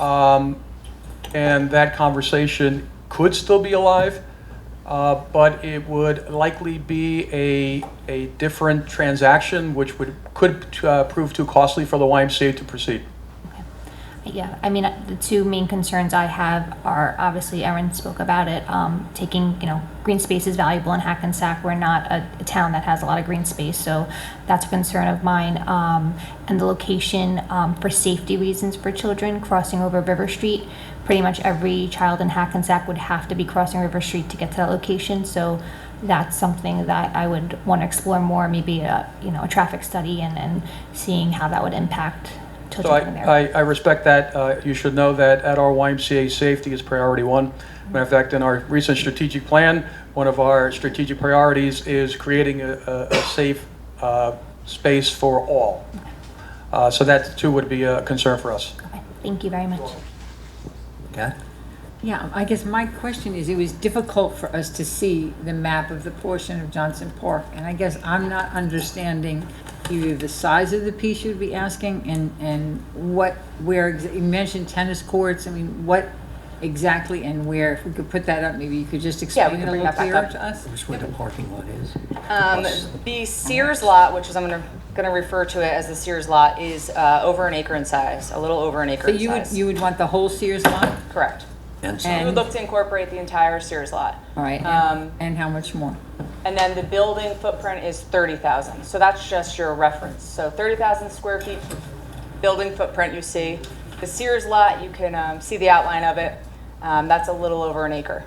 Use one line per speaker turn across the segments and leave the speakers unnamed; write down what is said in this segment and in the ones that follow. Um, and that conversation could still be alive, uh, but it would likely be a, a different transaction, which would, could uh, prove too costly for the YMCA to proceed.
Yeah, I mean, uh, the two main concerns I have are, obviously, Erin spoke about it, um, taking, you know, green space is valuable in Hackensack. We're not a, a town that has a lot of green space, so that's a concern of mine. Um, and the location, um, for safety reasons for children crossing over River Street. Pretty much every child in Hackensack would have to be crossing River Street to get to that location, so that's something that I would want to explore more, maybe a, you know, a traffic study and, and seeing how that would impact
So
children
I,
in there.
I, I respect that. Uh, you should know that at our YMCA, safety is priority one. Matter of fact, in our recent strategic plan, one of our strategic priorities is creating a, a, a safe, uh, space for all. Uh, so that too would be a concern for us.
Okay, Thank you very much.
Kat?
Yeah, I guess my question is, it was difficult for us to see the map of the portion of Johnson Park, and I guess I'm not understanding either the size of the piece you'd be asking and, and what, where, ex- you mentioned tennis courts, I mean, what exactly and where, if we could put that up, maybe you could just
Yeah, we
explain
can
it a
bring
little
that back
clearer
up.
to us?
Which where the parking lot is?
Um, the Sears lot, which is, I'm gonna, gonna refer to it as the Sears lot, is, uh, over an acre in size, a little over an acre
So
in
you would,
size.
you would want the whole Sears lot?
Correct.
And
We
so,
would look to incorporate the entire Sears lot.
All right, and-
Um,
and how much more?
and then the building footprint is thirty thousand, so that's just your reference. So thirty thousand square feet building footprint you see. The Sears lot, you can, um, see the outline of it, um, that's a little over an acre.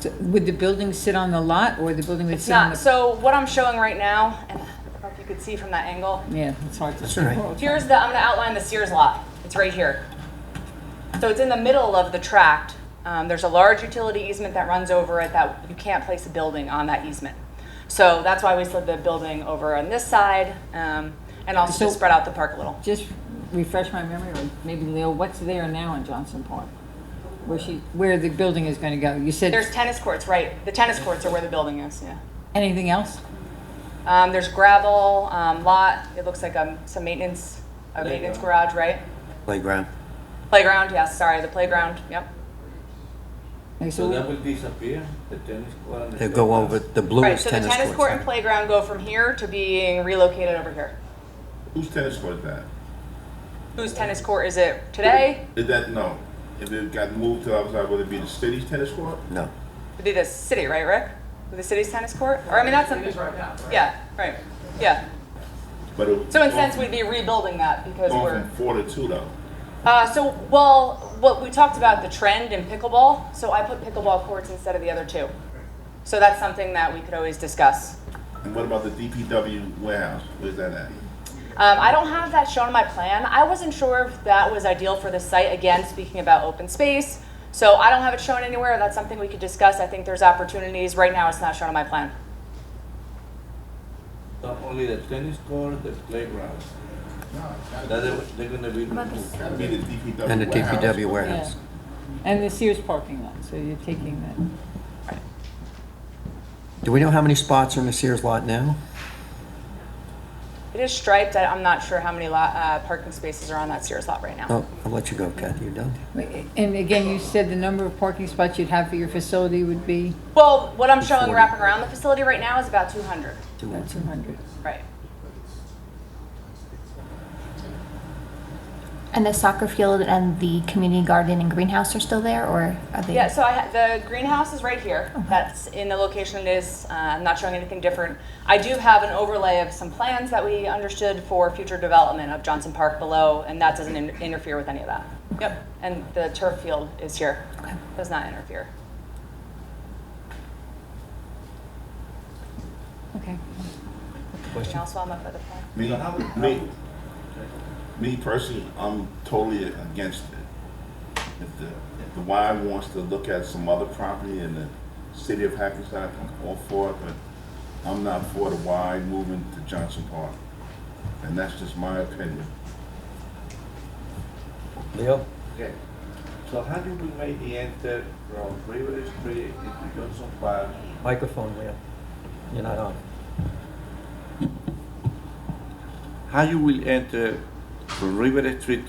So Would the building sit on the lot, or the building would
It's
sit on the?
not, so what I'm showing right now, and I don't know if you could see from that angle,
Yeah, it's hard to
That's
see.
all right.
Here's the, I'm gonna outline the Sears lot. It's right here. So it's in the middle of the tract. Um, there's a large utility easement that runs over it that you can't place a building on that easement. So that's why we slid the building over on this side, um, and also
So-
to spread out the park a little.
Just refresh my memory, or maybe Leo, what's there now in Johnson Park? Where she, where the building is gonna go? You
There's
said,
tennis courts, right? The tennis courts are where the building is, yeah.
anything else?
Um, there's gravel, um, lot. It looks like, um, some maintenance, a maintenance garage, right?
playground.
Playground, yes, sorry, the playground, yep.
Like,
So
so,
that will disappear, the tennis court and the.
They go over, the blue
Right,
is
so the
tennis
tennis court and
court.
playground go from here to being relocated over here.
Whose tennis court is that?
Whose tennis court is it today?
Is that no? If it got moved to outside, would it be the city's tennis court?
No.
It'd be the city, right, Rick? The city's tennis court? Or, I mean, that's something. right now, Yeah, right, yeah.
But it
So in a sense, we'd be rebuilding that because
going
we're,
from four to two though.
uh, so, well, what, we talked about the trend in pickleball, so I put pickleball courts instead of the other two. So that's something that we could always discuss.
And what about the DPW warehouse? Where's that at?
Um, I don't have that shown on my plan. I wasn't sure if that was ideal for the site, again, speaking about open space. So I don't have it shown anywhere. That's something we could discuss. I think there's opportunities. Right now, it's not shown on my plan.
Not only the tennis court, the playground. That they- they're gonna be removed.
That'd be the DPW.
And the
warehouse.
DPW warehouse.
and the Sears parking lot, so you're taking that.
Do we know how many spots are in the Sears lot now?
It is striped. I, I'm not sure how many lot, uh, parking spaces are on that Sears lot right now.
Oh, I'll let you go, Kathy, you're done.
And again, you said the number of parking spots you'd have for your facility would be
Well, what I'm showing
240.
wrapping around the facility right now is about 200.
about two hundred.
Right.
And the soccer field and the community garden and greenhouse are still there, or are they?
Yeah, so I, ha- the greenhouse is right here. That's in the location it is. Uh, I'm not showing anything different. I do have an overlay of some plans that we understood for future development of Johnson Park below, and that doesn't in- interfere with any of that. Yep, and the turf field is here. Does not interfere.
Okay.
Anything else while I'm up at the plan?
Me, me, me personally, I'm totally against it. If the, if the Y wants to look at some other property in the city of Hackensack, I'm all for it, but I'm not for the Y moving to Johnson Park. And that's just my opinion.
Leo?
Okay. So how do we make the enter from River Street into Johnson Park?
Microphone, Leo. You're not on.
How you will enter
from River Street